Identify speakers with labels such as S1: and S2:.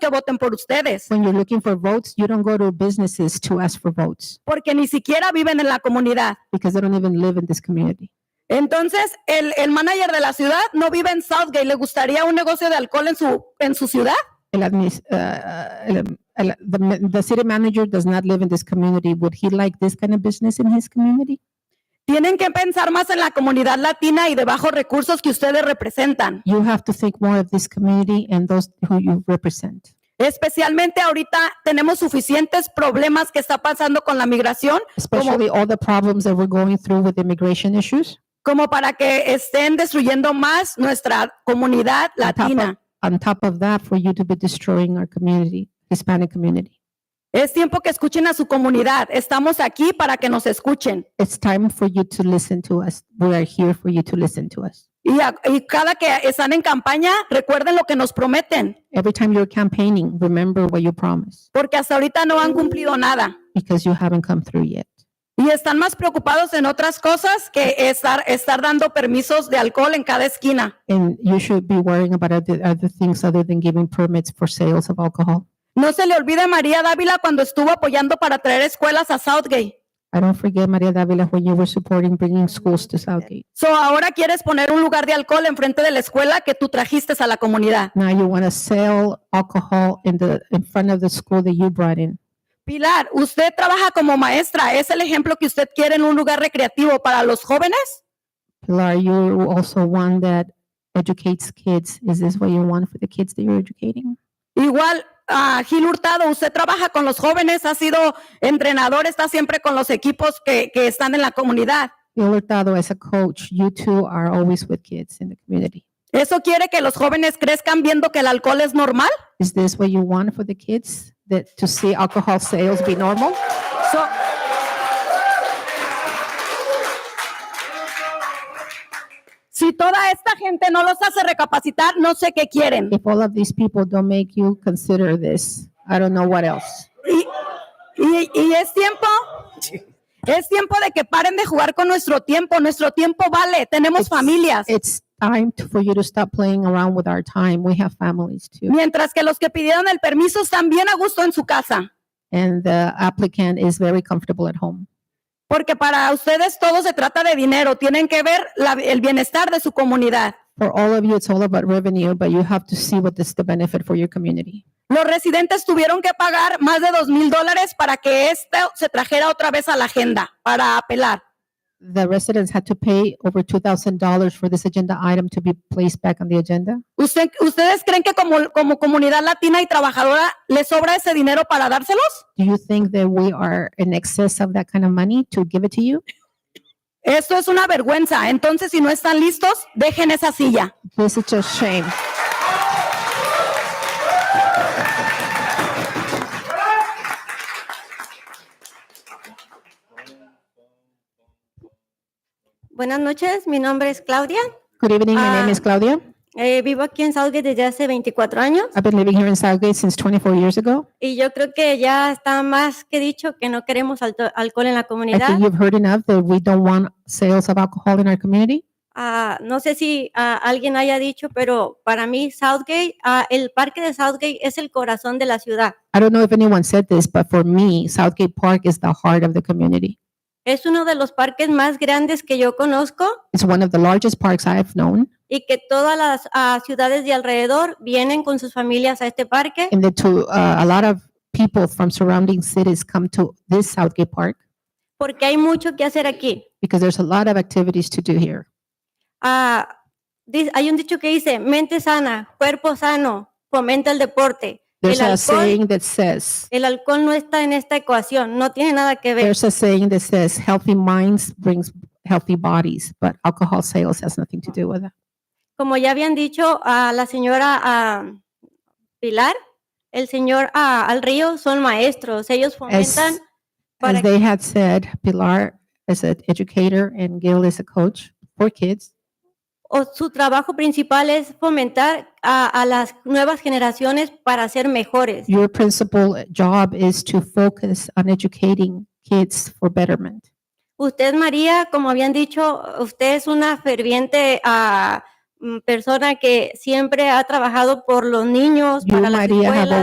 S1: que voten por ustedes,
S2: When you're looking for votes, you don't go to businesses to ask for votes
S1: porque ni siquiera viven en la comunidad.
S2: because they don't even live in this community.
S1: Entonces, el, el manager de la ciudad no vive en Southgate. ¿Le gustaría un negocio de alcohol en su, en su ciudad?
S2: El admis- uh, el- el- the, ma- the city manager does not live in this community. Would he like this kind of business in his community?
S1: Tienen que pensar más en la comunidad latina y de bajos recursos que ustedes representan,
S2: You have to think more of this community and those who you represent.
S1: especialmente ahorita tenemos suficientes problemas que está pasando con la migración
S2: Especially all the problems that we're going through with immigration issues.
S1: como para que estén destruyendo más nuestra comunidad
S2: On top of-
S1: latina.
S2: On top of that, for you to be destroying our community, Hispanic community.
S1: Es tiempo que escuchen a su comunidad. Estamos aquí para que nos escuchen.
S2: It's time for you to listen to us. We are here for you to listen to us.
S1: Y, a- y cada que están en campaña, recuerden lo que nos prometen,
S2: Every time you're campaigning, remember what you promised
S1: porque hasta ahorita no han cumplido nada.
S2: because you haven't come through yet.
S1: Y están más preocupados en otras cosas que estar, estar dando permisos de alcohol en cada esquina.
S2: And you should be worrying about other, other things other than giving permits for sales of alcohol.
S1: No se le olvide a María Dávila cuando estuvo apoyando para traer escuelas a Southgate.
S2: I don't forget, Maria Davila, when you were supporting bringing schools to Southgate.
S1: So ahora quieres poner un lugar de alcohol enfrente de la escuela que tú trajiste a la comunidad.
S2: Now you want to sell alcohol in the, in front of the school that you brought in.
S1: Pilar, usted trabaja como maestra. ¿Es el ejemplo que usted quiere en un lugar recreativo para los jóvenes?
S2: Pilar, you're also one that educates kids. Is this what you want for the kids that you're educating?
S1: Igual, ah, Gil Hurtado, usted trabaja con los jóvenes, ha sido entrenador, está siempre con los equipos que, que están en la comunidad.
S2: Gil Hurtado, as a coach, you two are always with kids in the community.
S1: ¿Eso quiere que los jóvenes crezcan viendo que el alcohol es normal?
S2: Is this what you want for the kids? That to see alcohol sales be normal?
S1: So- si toda esta gente no los hace recapacitar, no sé qué quieren.
S2: If all of these people don't make you consider this, I don't know what else.
S1: Y, y- y es tiempo, es tiempo de que paren de jugar con nuestro tiempo. Nuestro tiempo vale, tenemos familias.
S2: It's time to- for you to stop playing around with our time. We have families too.
S1: Mientras que los que pidieron el permiso están bien a gusto en su casa.
S2: And the applicant is very comfortable at home.
S1: Porque para ustedes todo se trata de dinero, tienen que ver la- el bienestar de su comunidad.
S2: For all of you, it's all about revenue, but you have to see what is the benefit for your community.
S1: Los residentes tuvieron que pagar más de dos mil dólares para que esto se trajera otra vez a la agenda para apelar.
S2: The residents had to pay over two thousand dollars for this agenda item to be placed back on the agenda.
S1: ¿Usted- ¿Ustedes creen que como, como comunidad latina y trabajadora les sobra ese dinero para dárselos?
S2: Do you think that we are in excess of that kind of money to give it to you?
S1: Esto es una vergüenza. Entonces, si no están listos, dejen esa silla.
S2: This is just shame.
S3: Buenas noches, mi nombre es Claudia.
S2: Good evening. My name is Claudia.
S3: Eh, vivo aquí en Southgate desde hace 24 años
S2: I've been living here in Southgate since twenty-four years ago.
S3: y yo creo que ya está más que dicho que no queremos alto- alcohol en la
S2: I
S3: comunidad.
S2: think you've heard enough that we don't want sales of alcohol in our community.
S3: Ah, no sé si ah, alguien haya dicho, pero para mí Southgate, ah, el parque de Southgate es el corazón de la ciudad.
S2: I don't know if anyone said this, but for me, Southgate Park is the heart of the community.
S3: Es uno de los parques más grandes que yo conozco
S2: It's one of the largest parks I have known,
S3: y que todas las ah, ciudades de alrededor vienen con sus familias a este parque.
S2: and that to uh, a lot of people from surrounding cities come to this Southgate Park
S3: porque hay mucho que hacer aquí.
S2: because there's a lot of activities to do here.
S3: Ah, di- hay un dicho que dice, mente sana, cuerpo sano, fomenta el deporte.
S2: There's
S3: El
S2: a
S3: alcohol-
S2: saying that says,
S3: El alcohol no está en esta ecuación, no tiene nada que ver.
S2: there's a saying that says, healthy minds brings healthy bodies, but alcohol sales has nothing to do with that.
S3: Como ya habían dicho a la señora ah, Pilar, el señor ah, al río son maestros, ellos
S2: As,
S3: fomentan para
S2: as they had said, Pilar is an educator and Gil is a coach for kids.
S3: o su trabajo principal es fomentar a, a las nuevas generaciones para ser mejores.
S2: Your principal job is to focus on educating kids for betterment.
S3: Usted, María, como habían dicho, usted es una ferviente ah, mm, persona que siempre ha trabajado por los niños,
S2: You,
S3: para las
S2: María, have
S3: escuelas.